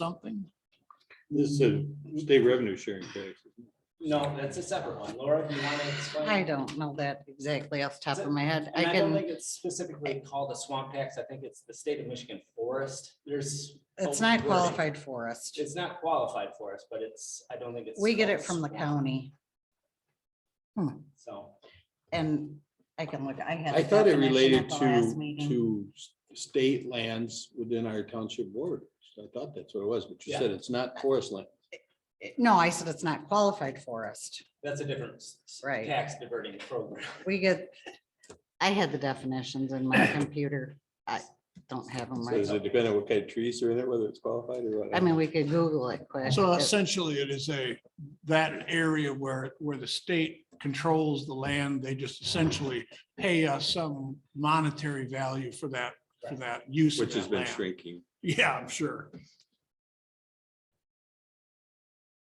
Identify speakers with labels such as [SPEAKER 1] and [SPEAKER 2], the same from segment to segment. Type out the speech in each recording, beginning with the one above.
[SPEAKER 1] something?
[SPEAKER 2] This is a state revenue sharing tax.
[SPEAKER 3] No, that's a separate one. Laura, do you want to explain?
[SPEAKER 4] I don't know that exactly off the top of my head. I
[SPEAKER 3] And I don't
[SPEAKER 4] can,
[SPEAKER 3] think it's specifically called a swamp tax. I think it's the state of Michigan forest. There's.
[SPEAKER 4] it's
[SPEAKER 3] a
[SPEAKER 4] not
[SPEAKER 3] wording.
[SPEAKER 4] qualified for us.
[SPEAKER 3] It's not qualified for us, but it's, I don't think it's.
[SPEAKER 4] We get it
[SPEAKER 3] called
[SPEAKER 4] from the
[SPEAKER 3] swamp,
[SPEAKER 4] county Hmm.
[SPEAKER 3] So,
[SPEAKER 4] and I can look, I had.
[SPEAKER 2] I
[SPEAKER 4] the
[SPEAKER 2] thought it
[SPEAKER 4] definition
[SPEAKER 2] related
[SPEAKER 4] at the last
[SPEAKER 2] to,
[SPEAKER 4] meeting.
[SPEAKER 2] to s- state lands within our township borders. I thought that's what it was, but you said it's not forest land.
[SPEAKER 4] No, I said it's not qualified forest.
[SPEAKER 3] that's a different. s- s-
[SPEAKER 4] Right.
[SPEAKER 3] Tax diverting program.
[SPEAKER 4] We get, I had the definitions in my computer. I don't have them
[SPEAKER 2] So
[SPEAKER 4] right.
[SPEAKER 2] Does it depend on what kind of trees are in it, whether it's qualified or what?
[SPEAKER 4] I mean, we could Google it quick.
[SPEAKER 1] So
[SPEAKER 4] It-
[SPEAKER 1] essentially, it is a, that area where, where the state controls the land, they just essentially pay us some monetary value for that, for that use. of
[SPEAKER 2] Which has
[SPEAKER 1] that
[SPEAKER 2] been
[SPEAKER 1] land.
[SPEAKER 2] shrinking.
[SPEAKER 1] Yeah, I'm sure.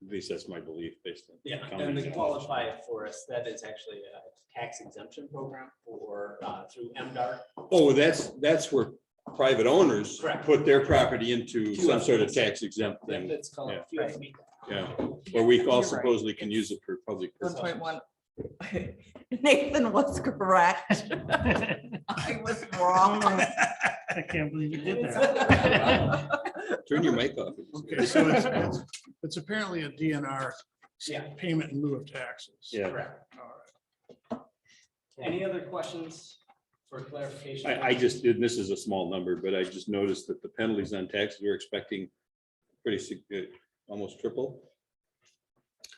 [SPEAKER 2] At least that's my belief based on.
[SPEAKER 3] Yeah, and
[SPEAKER 2] common
[SPEAKER 3] the
[SPEAKER 2] knowledge.
[SPEAKER 3] qualified forest, that is actually a tax exemption program for, uh, through MDR.
[SPEAKER 2] Oh, that's, that's where private owners
[SPEAKER 3] Correct.
[SPEAKER 2] put their property into some sort of tax exempt thing,
[SPEAKER 3] It's called
[SPEAKER 2] Yeah.
[SPEAKER 3] QFB.
[SPEAKER 2] yeah, where we all
[SPEAKER 5] You're right.
[SPEAKER 2] supposedly can use it for public
[SPEAKER 5] One
[SPEAKER 2] purposes.
[SPEAKER 5] point one. Nathan was correct. I was wrong.
[SPEAKER 6] I can't believe you did that.
[SPEAKER 2] Turn your mic off.
[SPEAKER 1] Okay, so it's, it's- it's apparently a DNR
[SPEAKER 3] Yeah.
[SPEAKER 1] payment in lieu of taxes.
[SPEAKER 2] Yeah.
[SPEAKER 3] Correct.
[SPEAKER 1] All right.
[SPEAKER 3] Any other questions for clarification?
[SPEAKER 2] I, I just did, this is a small number, but I just noticed that the penalties on taxes we're expecting pretty significant, almost triple.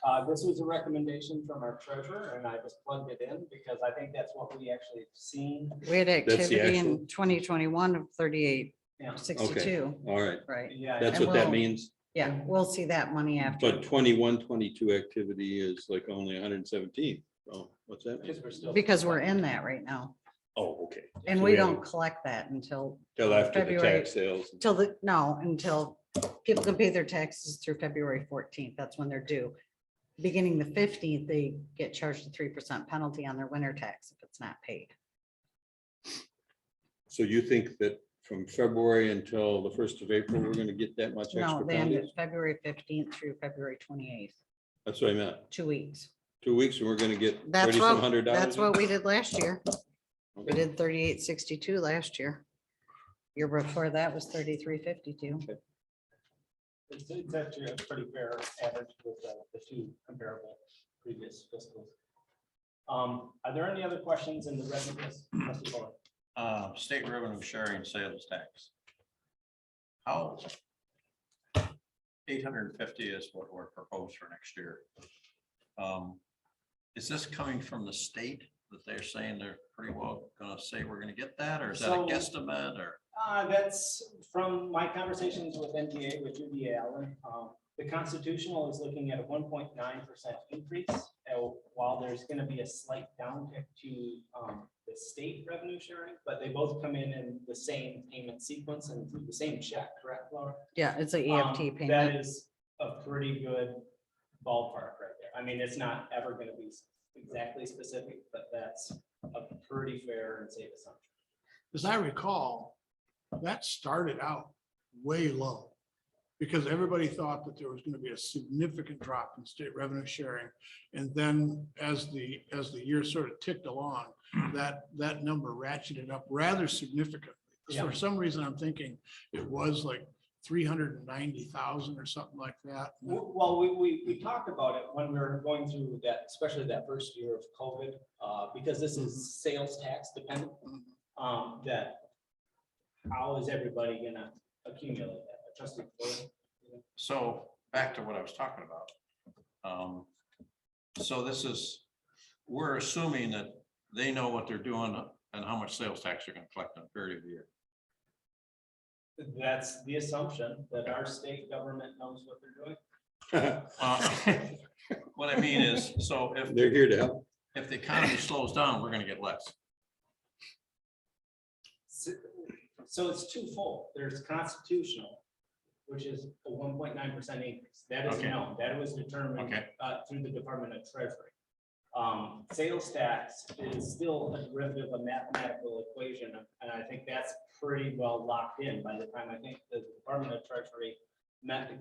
[SPEAKER 3] Uh, this was a recommendation from our treasurer and I just plugged it in because I think that's what we actually have seen.
[SPEAKER 4] We had
[SPEAKER 2] the
[SPEAKER 4] activity
[SPEAKER 2] actual-
[SPEAKER 4] in twenty twenty-one of thirty-eight,
[SPEAKER 3] Yeah.
[SPEAKER 4] sixty-two,
[SPEAKER 2] All right,
[SPEAKER 4] right?
[SPEAKER 3] Yeah.
[SPEAKER 2] that's
[SPEAKER 4] And
[SPEAKER 2] what that
[SPEAKER 4] we'll-
[SPEAKER 2] means.
[SPEAKER 4] Yeah, we'll see that money after.
[SPEAKER 2] But 21, 22 activity is like only hundred and seventeen. Oh, what's that? mean?
[SPEAKER 3] Because we're still.
[SPEAKER 4] Because we're in that right now
[SPEAKER 2] Oh, okay.
[SPEAKER 4] and
[SPEAKER 2] So
[SPEAKER 4] we
[SPEAKER 2] haven't-
[SPEAKER 4] don't collect that until,
[SPEAKER 2] Till after the
[SPEAKER 4] February.
[SPEAKER 2] tax sales.
[SPEAKER 4] till the, no, until people can pay their taxes through February fourteenth. That's when they're due. Beginning the fifteenth, they get charged a three percent penalty on their winter tax if it's not paid.
[SPEAKER 2] So you think that from February until the first of April, we're gonna get that much
[SPEAKER 4] No,
[SPEAKER 2] extra
[SPEAKER 4] they end
[SPEAKER 2] penalties?
[SPEAKER 4] it February fifteenth through February twenty-eighth,
[SPEAKER 2] That's what I meant.
[SPEAKER 4] two weeks.
[SPEAKER 2] Two weeks and we're gonna get
[SPEAKER 4] That's
[SPEAKER 2] thirty-some
[SPEAKER 4] what,
[SPEAKER 2] hundred dollars.
[SPEAKER 4] that's what we did last year. We
[SPEAKER 2] Okay.
[SPEAKER 4] did thirty-eight sixty-two last year. Year before that was thirty-three fifty-two.
[SPEAKER 3] It's, it's actually a pretty fair average with uh, the two comparable previous fiscals. Um, are there any other questions in the rest of this? Trustee Bowman?
[SPEAKER 7] uh, state revenue sharing sales tax. How? Eight hundred and fifty is what we're proposed for next year. Um, Is this coming from the state that they're saying they're pretty well gonna say we're gonna get that, or is that a
[SPEAKER 3] So-
[SPEAKER 7] guesstimate, or?
[SPEAKER 3] Uh, that's from my conversations with NGA with Judy Allen. Um, the constitutional is looking at a one point nine percent increase. uh, While there's gonna be a slight downtick to, um, the state revenue sharing, but they both come in in the same payment sequence and through the same check, correct, Laura?
[SPEAKER 4] Yeah, it's a
[SPEAKER 3] Um,
[SPEAKER 4] EFT
[SPEAKER 3] That
[SPEAKER 4] E payment.
[SPEAKER 3] is a pretty good ballpark right there. I mean, it's not ever gonna be exactly specific, but that's a pretty fair and safe assumption.
[SPEAKER 1] as I recall, that started out way low. Because everybody thought that there was gonna be a significant drop in state revenue sharing. And then as the, as the year sort of ticked along, that, that number ratcheted up rather significantly. 'Cause
[SPEAKER 3] Yeah.
[SPEAKER 1] For some reason, I'm thinking it was like three hundred and ninety thousand or something like that.
[SPEAKER 3] W- Well, we, we, we talked about it when we were going through that, especially that first year of COVID, uh, because this is sales tax dependent. Um, that, how is everybody gonna accumulate that? Trustee Floyd?
[SPEAKER 7] So back to what I was talking about. Um, So this is, we're assuming that they know what they're doing and how much sales tax they're gonna collect in a period of year.
[SPEAKER 3] That's the assumption that our state government knows what they're doing.
[SPEAKER 7] Uh, What I mean is, so if
[SPEAKER 2] They're here to help.
[SPEAKER 7] if the economy slows down, we're gonna get less.
[SPEAKER 3] So- So it's twofold. There's constitutional, which is a one point nine percent increase. That is
[SPEAKER 7] Okay.
[SPEAKER 3] known. That was determined
[SPEAKER 7] Okay.
[SPEAKER 3] uh, through the Department of Treasury. Um, sales tax is still a derivative of mathematical equation, and I think that's pretty well locked in by the time I think the Department of Treasury met the